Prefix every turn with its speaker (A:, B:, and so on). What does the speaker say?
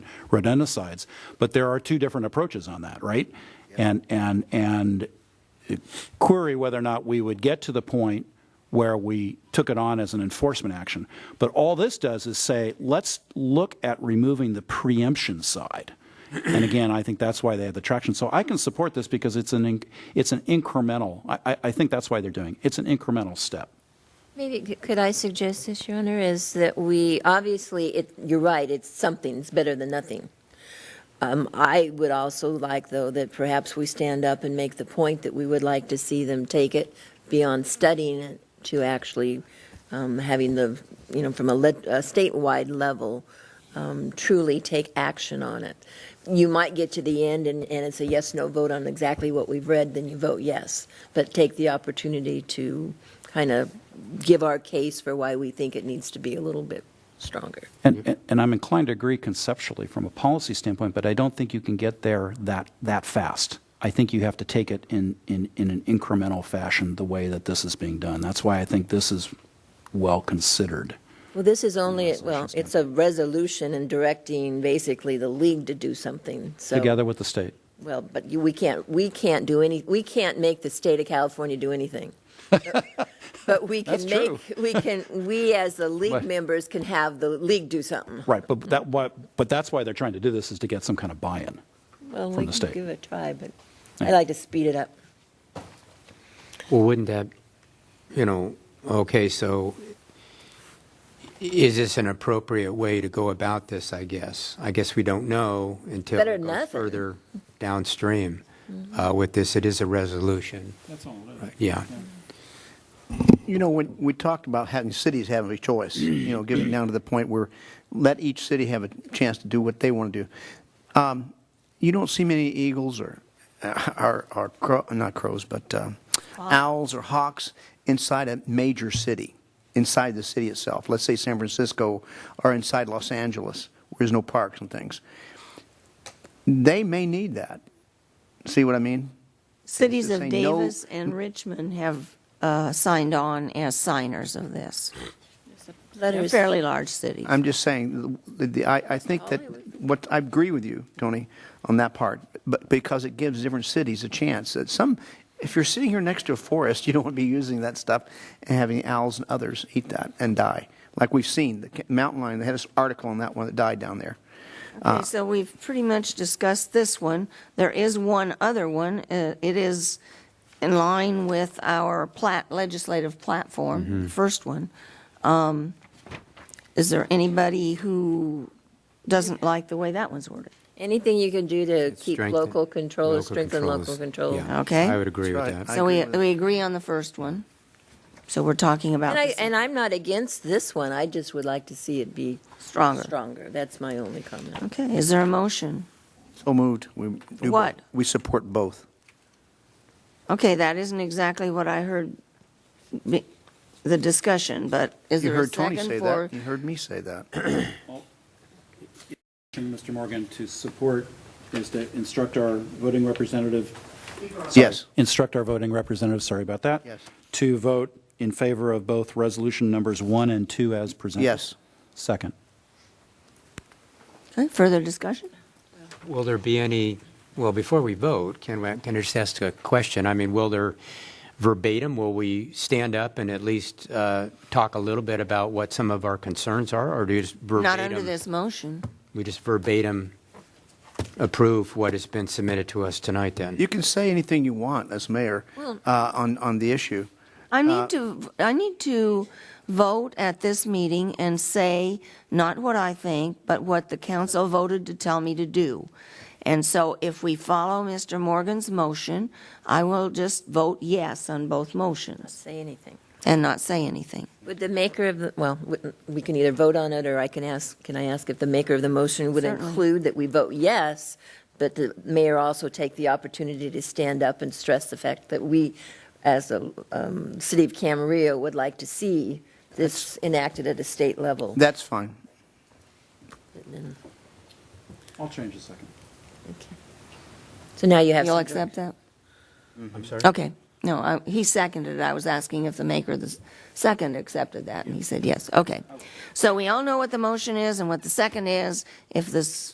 A: rodenticides. But there are two different approaches on that, right? And, and, and query whether or not we would get to the point where we took it on as an enforcement action. But all this does is say, let's look at removing the preemption side. And again, I think that's why they have the traction. So I can support this because it's an, inc- it's an incremental, I, I, I think that's why they're doing, it. it's an incremental step.
B: Maybe, c- could I suggest this, Your Honor, is that we, obviously, it, you're right, it's something's better than nothing. Um, I would also like, though, that perhaps we stand up and make the point that we would like to see them take it beyond studying it to actually um, having the, you know, from a lit- a statewide level, um, truly take action on it. You might get to the end and, and it's a yes/no vote on exactly what we've read, then you vote yes, but take the opportunity to kind of give our case for why we think it needs to be a little bit stronger.
A: And, and- and I'm inclined to agree conceptually from a policy standpoint, but I don't think you can get there that, that fast. I think you have to take it in, in, in an incremental fashion, the way that this is being done. That's why I think this is well considered.
B: Well, this is only, well, it's a resolution and directing basically the league to do something, so.
A: Together with the state.
B: Well, but you, we can't, we can't do any, we can't make the state of California do anything. But we
A: That's
B: can
A: true.
B: make, we can, we as the league
A: Right.
B: members can have the league do something.
A: Right, but that, what, but that's why they're trying to do this, is to get some kind of buy-in.
B: Well,
A: From
B: we
A: the
B: can
A: state.
B: give it a try, but
A: Yeah.
B: I like to speed it up.
C: Well, wouldn't that, you know, okay, so i- is this an appropriate way to go about this, I guess? I guess we don't know until
B: Better
C: it goes
B: nothing.
C: further downstream uh, with this. It is a resolution.
A: That's all it is.
C: Yeah.
D: You know, when we talked about having cities have a choice, you know, getting down to the point where let each city have a chance to do what they want to do. Um, You don't see many eagles or, uh, or, or crow, not crows, but um, owls or hawks inside a major city, inside the city itself. Let's say San Francisco or inside Los Angeles, where there's no parks and things. They may need that. See what I mean?
E: Cities
D: to
E: of
D: say no-
E: Davis and Richmond have uh, signed on as signers of this. They're
B: Letters,
E: fairly large cities.
D: I'm just saying, the- the- I, I think that, what, I agree with you, Tony, on that part, but because it gives different cities a chance. That some, if you're sitting here next to a forest, you don't want to be using that stuff and having owls and others eat that and die. Like we've seen, the ca- mountain lion, they had this article on that one that died down there. uh,
E: Okay, so we've pretty much discussed this one. There is one other one. Uh, It is in line with our plat, legislative
D: Mm-hmm.
E: platform, the first one. Um, Is there anybody who doesn't like the way that one's worded?
B: anything you can do to keep
C: Strengthen-
B: local control, or
C: local
B: strengthen
C: controls.
B: local control.
C: Yeah,
E: Okay.
C: I would agree with
D: That's right.
C: that.
D: I
E: So we,
D: agree with-
E: we agree on the first one. So we're talking about
B: And I,
E: this
B: and I'm not against this one, I just would like to see it be
E: stronger.
B: stronger, that's my only comment.
E: Okay, is there a motion?
D: So moved. We do both.
E: What?
D: We support both.
E: Okay, that isn't exactly what I heard, be- the discussion, but is
D: You
E: there a
D: heard Tony
E: second
D: say
E: for?
D: that, you heard me say that.
A: Mr. Morgan, to support is to instruct our voting representative
D: Yes.
A: instruct our voting representatives, sorry about that.
D: Yes.
A: To vote in favor of both resolution numbers one and two as presented.
D: Yes.
A: Second.
E: Okay, Further discussion?
C: Will there be any, well, before we vote, can we, can I just ask a question? I mean, will there verbatim, will we stand up and at least uh, talk a little bit about what some of our concerns are, or do you just verbatim?
E: Not under this motion.
C: We just verbatim approve what has been submitted to us tonight, then?
D: You can say anything you want as mayor
E: Well-
D: uh, on, on the issue. Uh,
E: I need to, I need to vote at this meeting and say not what I think, but what the council voted to tell me to do. And so if we follow Mr. Morgan's motion, I will just vote yes on both motions
B: Say anything.
E: and not say anything.
B: Would the maker of, the well, we- we can either vote on it, or I can ask, can I ask if the maker of the motion would
E: Certainly.
B: include that we vote yes, but the mayor also take the opportunity to stand up and stress the fact that we, as a um, city of Camarillo, would like to see this enacted at a state level?
D: That's fine.
A: I'll change the second.
B: So now you have.
E: You'll
B: some-
E: accept that?
C: I'm sorry?
E: Okay. No, I- he seconded it. I was asking if the maker of the s- second accepted that, and he said yes. Okay. So we all know what the motion is and what the second is. If this